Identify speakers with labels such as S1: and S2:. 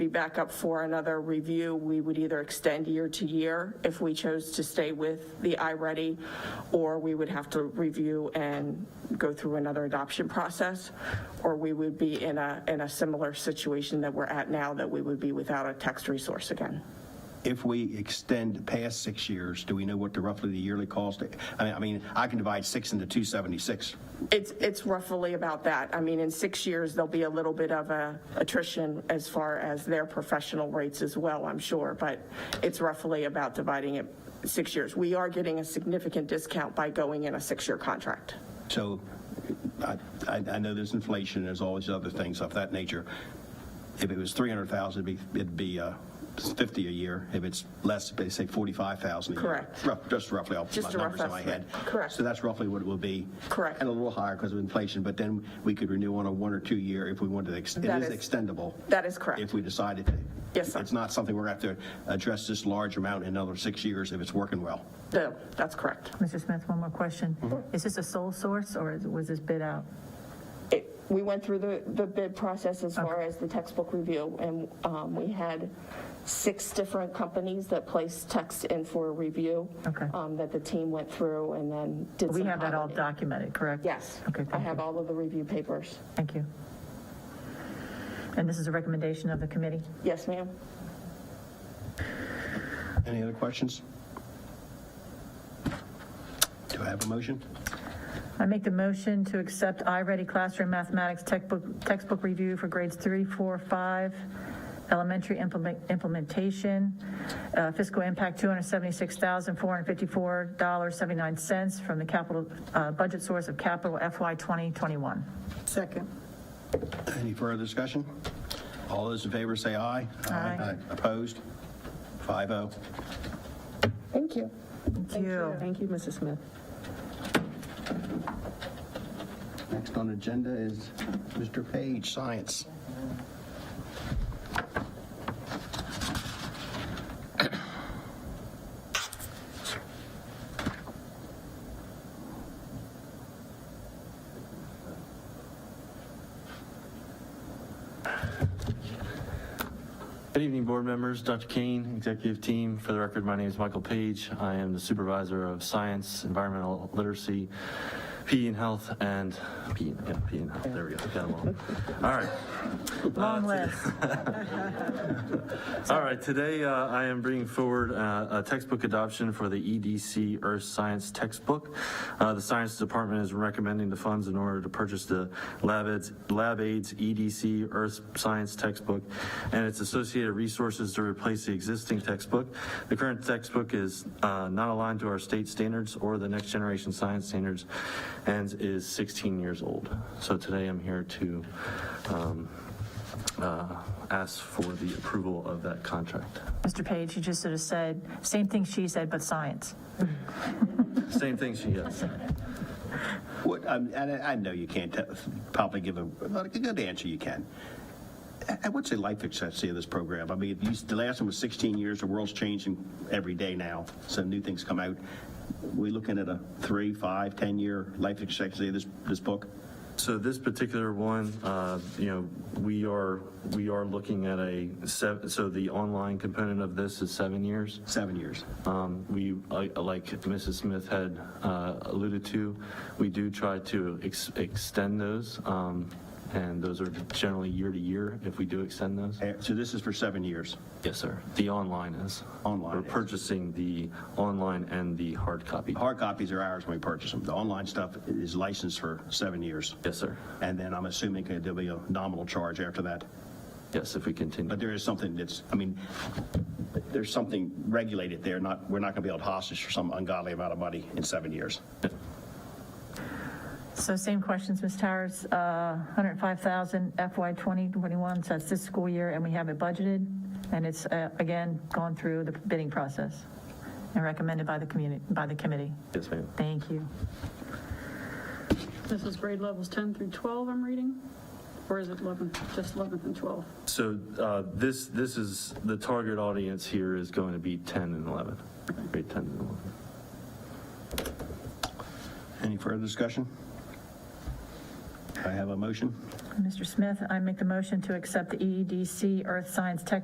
S1: back up for another review, we would either extend year to year if we chose to stay with the iReady, or we would have to review and go through another adoption process, or we would be in a, in a similar situation that we're at now, that we would be without a text resource again.
S2: If we extend past six years, do we know what the roughly the yearly cost? I mean, I mean, I can divide six into 276.
S1: It's, it's roughly about that. I mean, in six years, there'll be a little bit of a attrition as far as their professional rates as well, I'm sure, but it's roughly about dividing it six years. We are getting a significant discount by going in a six-year contract.
S2: So I, I I know there's inflation, there's always other things of that nature. If it was 300,000, it'd be, it'd be uh, 50 a year. If it's less, they say 45,000 a year.
S1: Correct.
S2: Rough- Just roughly, off my
S1: Just a rough
S2: numbers in my head.
S1: estimate. Correct.
S2: So that's roughly what it will be.
S1: Correct.
S2: And a little higher because of inflation, but then we could renew on a one or two year if we wanted to. ex- It
S1: That
S2: is
S1: is-
S2: extendable.
S1: That is correct.
S2: If we decided to.
S1: Yes, sir.
S2: It's not something we're going to have to address this large amount in another six years if it's working well.
S1: No, That's correct.
S3: Mr. Smith, one more question.
S1: Mm-hmm.
S3: Is this a sole source or is- was this bid out?
S1: It- We went through the, the bid process as far as the textbook review, and um, we had six different companies that placed text in for review.
S3: Okay.
S1: um, That the team went through and then did some.
S3: We have that all
S1: commenting.
S3: documented, correct?
S1: Yes.
S3: Okay,
S1: I
S3: thank
S1: have
S3: you.
S1: all of the review papers.
S3: Thank you. And this is a recommendation of the committee?
S1: Yes, ma'am?
S2: Any other questions? Do I have a motion?
S3: I make the motion to accept iReady Classroom Mathematics Textbook, Textbook Review for grades three, four, five, elementary implement, implementation, uh, fiscal impact $276,454.79 from the capital, uh, budget source of capital FY 2021.
S4: Second.
S2: Any further discussion? All those in favor say aye.
S3: Aye.
S2: Opposed? oh. 5-0.
S1: Thank you.
S3: Thank you.
S4: Thank you, Mrs. Smith.
S2: Next on agenda is Mr. Page, Science.
S5: Good evening, board members, Dr. Kane, executive team. For the record, my name is Michael Page. I am the supervisor of science, environmental literacy, PE and health, and PE, yeah, PE and health. There we go. Got 'em all. All right.
S3: Long list.
S5: All right, today uh, I am bringing forward uh, a textbook adoption for the EDC Earth Science textbook. Uh, The Science Department is recommending the funds in order to purchase the Lab Aids Lab Aids EDC Earth Science textbook and its associated resources to replace the existing textbook. The current textbook is uh, not aligned to our state standards or the next generation science standards and is 16 years old. So today I'm here to um, uh, ask for the approval of that contract.
S3: Mr. Page, you just sort of said, same thing she said, but science.
S5: Same thing she does.
S2: What, um, and I I know you can't te- probably give a, but a good answer you can. And What's the life expectancy of this program? I mean, if you- the last one was 16 years, the world's changing every day now, so new things come out. We looking at a three, five, 10-year life expectancy of this, this book?
S5: So this particular one, uh, you know, we are, we are looking at a, sev- so the online component of this is seven years.
S2: Seven years.
S5: Um, We, like like Mrs. Smith had uh, alluded to, we do try to ex- extend those, um, and those are generally year to year if we do extend those.
S2: Uh, So this is for seven years.
S5: Yes, sir. The online is.
S2: Online
S5: We're
S2: is.
S5: purchasing the online and the hard copy.
S2: Hard copies are ours when we purchase them. The online stuff is licensed for seven years.
S5: Yes, sir.
S2: And then I'm assuming there'll be a nominal charge after that.
S5: Yes, if we continue.
S2: But there is something that's, I mean, there's something regulated there, not, we're not going to be held hostage for some ungodly amount of money in seven years.
S3: So same questions, Ms. Towers, Uh, 105,000 FY 2021, so that's this school year, and we have it budgeted, and it's, uh, again, gone through the bidding process and recommended by the community, by the committee.
S5: Yes, ma'am.
S3: Thank you.
S6: This is grade levels 10 through 12 I'm reading, or is it 11, just 11th and 12th?
S5: So uh, this, this is, the target audience here is going to be 10 and 11, grade 10 and 11.
S2: Any further discussion? I have a motion.
S3: E Mr. Smith, I make the motion to accept the EEDC Earth Science Tech